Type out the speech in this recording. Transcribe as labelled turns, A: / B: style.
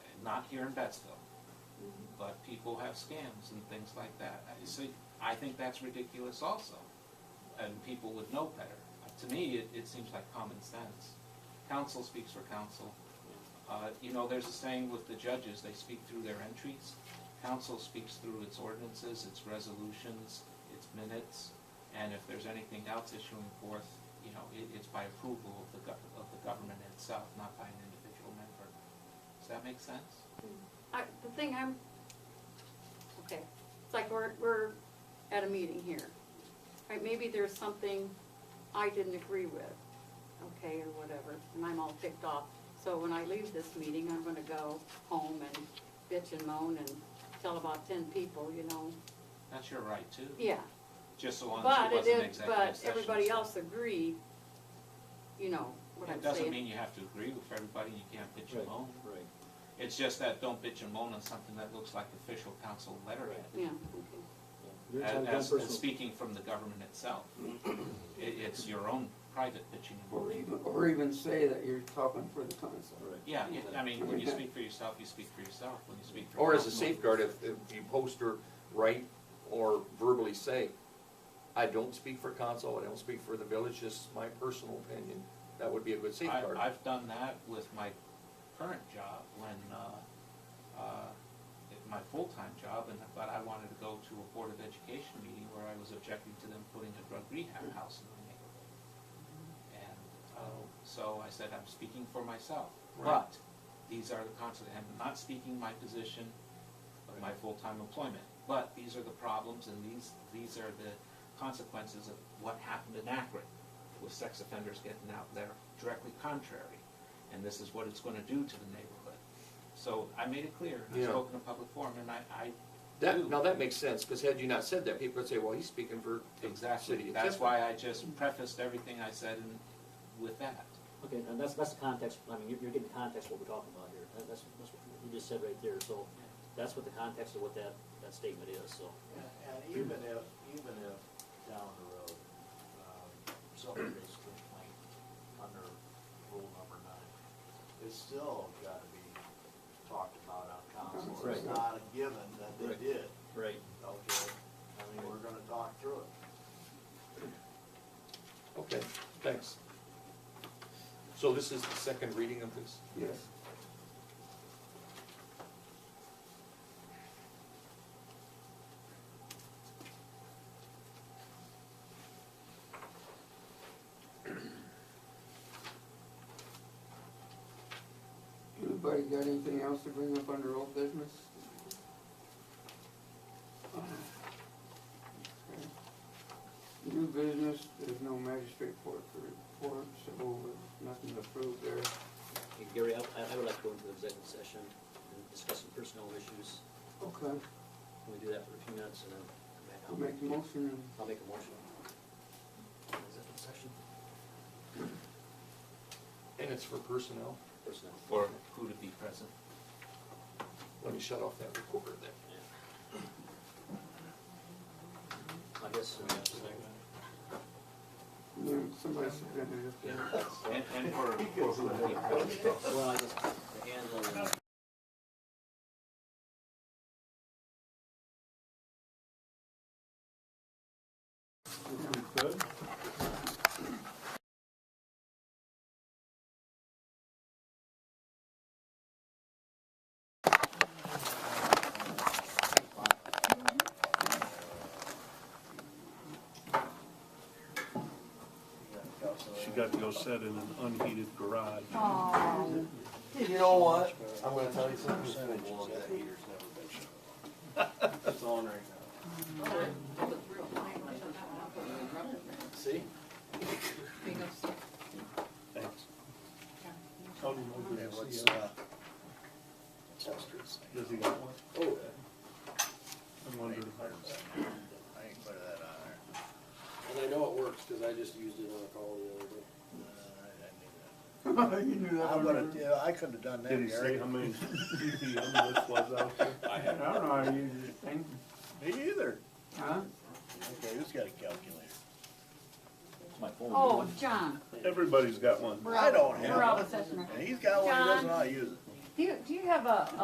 A: not here in Betsville. But people have scams and things like that. I- So I think that's ridiculous also, and people would know better. To me, it, it seems like common sense. Counsel speaks for counsel. Uh, You know, there's a saying with the judges, they speak through their entries. Council speaks through its ordinances, its resolutions, its minutes, and if there's anything else issuing forth, you know, it, it's by approval of the gov, of the government itself, not by an individual member. Does that make sense?
B: I, the thing I'm, okay, it's like we're, we're at a meeting here. Right, maybe there's something I didn't agree with, okay, or whatever, and I'm all ticked off. So when I leave this meeting, I'm gonna go home and bitch and moan and tell about ten people, you know,
A: That's your right too,
B: yeah.
A: just so long as
B: But
A: it
B: it
A: wasn't
B: is,
A: executive
B: but
A: session,
B: everybody
A: so-
B: else agreed, you know, what I'm
A: It
B: saying.
A: doesn't mean you have to agree with everybody, you can't bitch and moan.
C: Right.
A: It's just that don't bitch and moan on something that looks like official council letterhead.
B: Yeah, okay.
C: You're
A: As,
C: telling one
A: as- as
C: person,
A: speaking from the government itself. It, it's your own private pitching and
D: Or
A: moaning.
D: even, or even say that you're talking for the council.
C: right,
A: Yeah, it- I mean, when you speak for yourself, you speak for yourself, when you speak for.
E: Or as a
A: council-
E: safeguard, if, if you post or write or verbally say, I don't speak for council, I don't speak for the village, this is my personal opinion, that would be a good
A: I,
E: safeguard.
A: I've done that with my current job when, uh, uh, it- my full-time job, and, but I wanted to go to a Board of Education meeting where I was objecting to them putting a drug rehab house in my neighborhood. And, uh, so I said, I'm speaking for myself,
E: Right.
A: but these are the consequences, I'm not speaking my position of my full-time employment, but these are the problems and these, these are the consequences of what happened in Akron with sex offenders getting out there directly contrary, and this is what it's gonna do to the neighborhood. So I made it clear, and I
E: Yeah.
A: spoke in a public forum, and I, I,
E: That, now that makes sense, because had you not said that, people would say, well, he's speaking for the city.
A: exactly,
E: of
A: that's
E: Tiffin."
A: why I just prefaced everything I said in, with that.
C: okay, and that's, that's the context, I mean, you're, you're getting context of what we're talking about here, That- that's, that's what you just said right there, so that's what the context of what that, that statement is, so.
F: And and even if, even if down the road, um, somebody makes a complaint under rule number nine, it's still gotta be talked about on council. It's
C: Right.
F: not a given that they
C: Right.
F: did,
C: Right.
F: okay? I mean, we're gonna talk through it.
E: Okay, thanks. So this is the second reading of this?
D: Yes. Anybody got anything else to bring up under old business? Okay. New business, there's no magistrate court for report, so nothing to prove there.
C: Hey, Gary, I, I would like to go into executive session and discuss some personnel issues,
D: Okay,
C: can we do that for a few minutes and then
D: I'll
C: come back out?
D: make the motion and
C: I'll make a motion. Executive session,
E: And it's for personnel?
C: personnel.
A: Or who to be present.
E: Let me shut off that recorder then.
C: I guess, uh,
D: then somebody submitted it.
A: And, and for, for who to be present.
C: well, I guess, and, uh,
G: She got to go sit in an unheated garage.
E: You know what? I'm gonna tell you something.
F: It's on right now. See?
G: Thanks.
F: Yeah, what's, uh, Chester's.
G: Does he got one?
F: Oh.
G: I wonder if that's-
F: I ain't put that on there.
H: And I know it works, cause I just used it on a call the other day.
D: You knew that.
F: I
D: one.
F: would've, yeah, I could've done that,
G: Did he say
F: Gary.
G: how many DPM this was out there?
D: I don't know, how you just think,
F: Me either.
D: huh?
F: Okay, who's got a calculator?
B: Oh, John,
G: Everybody's got one.
B: we're
F: I
B: out,
F: don't
B: we're out
F: have
B: of session.
F: one. And he's got one, he doesn't
B: John.
F: know how to use it.
B: Do you, do you have a,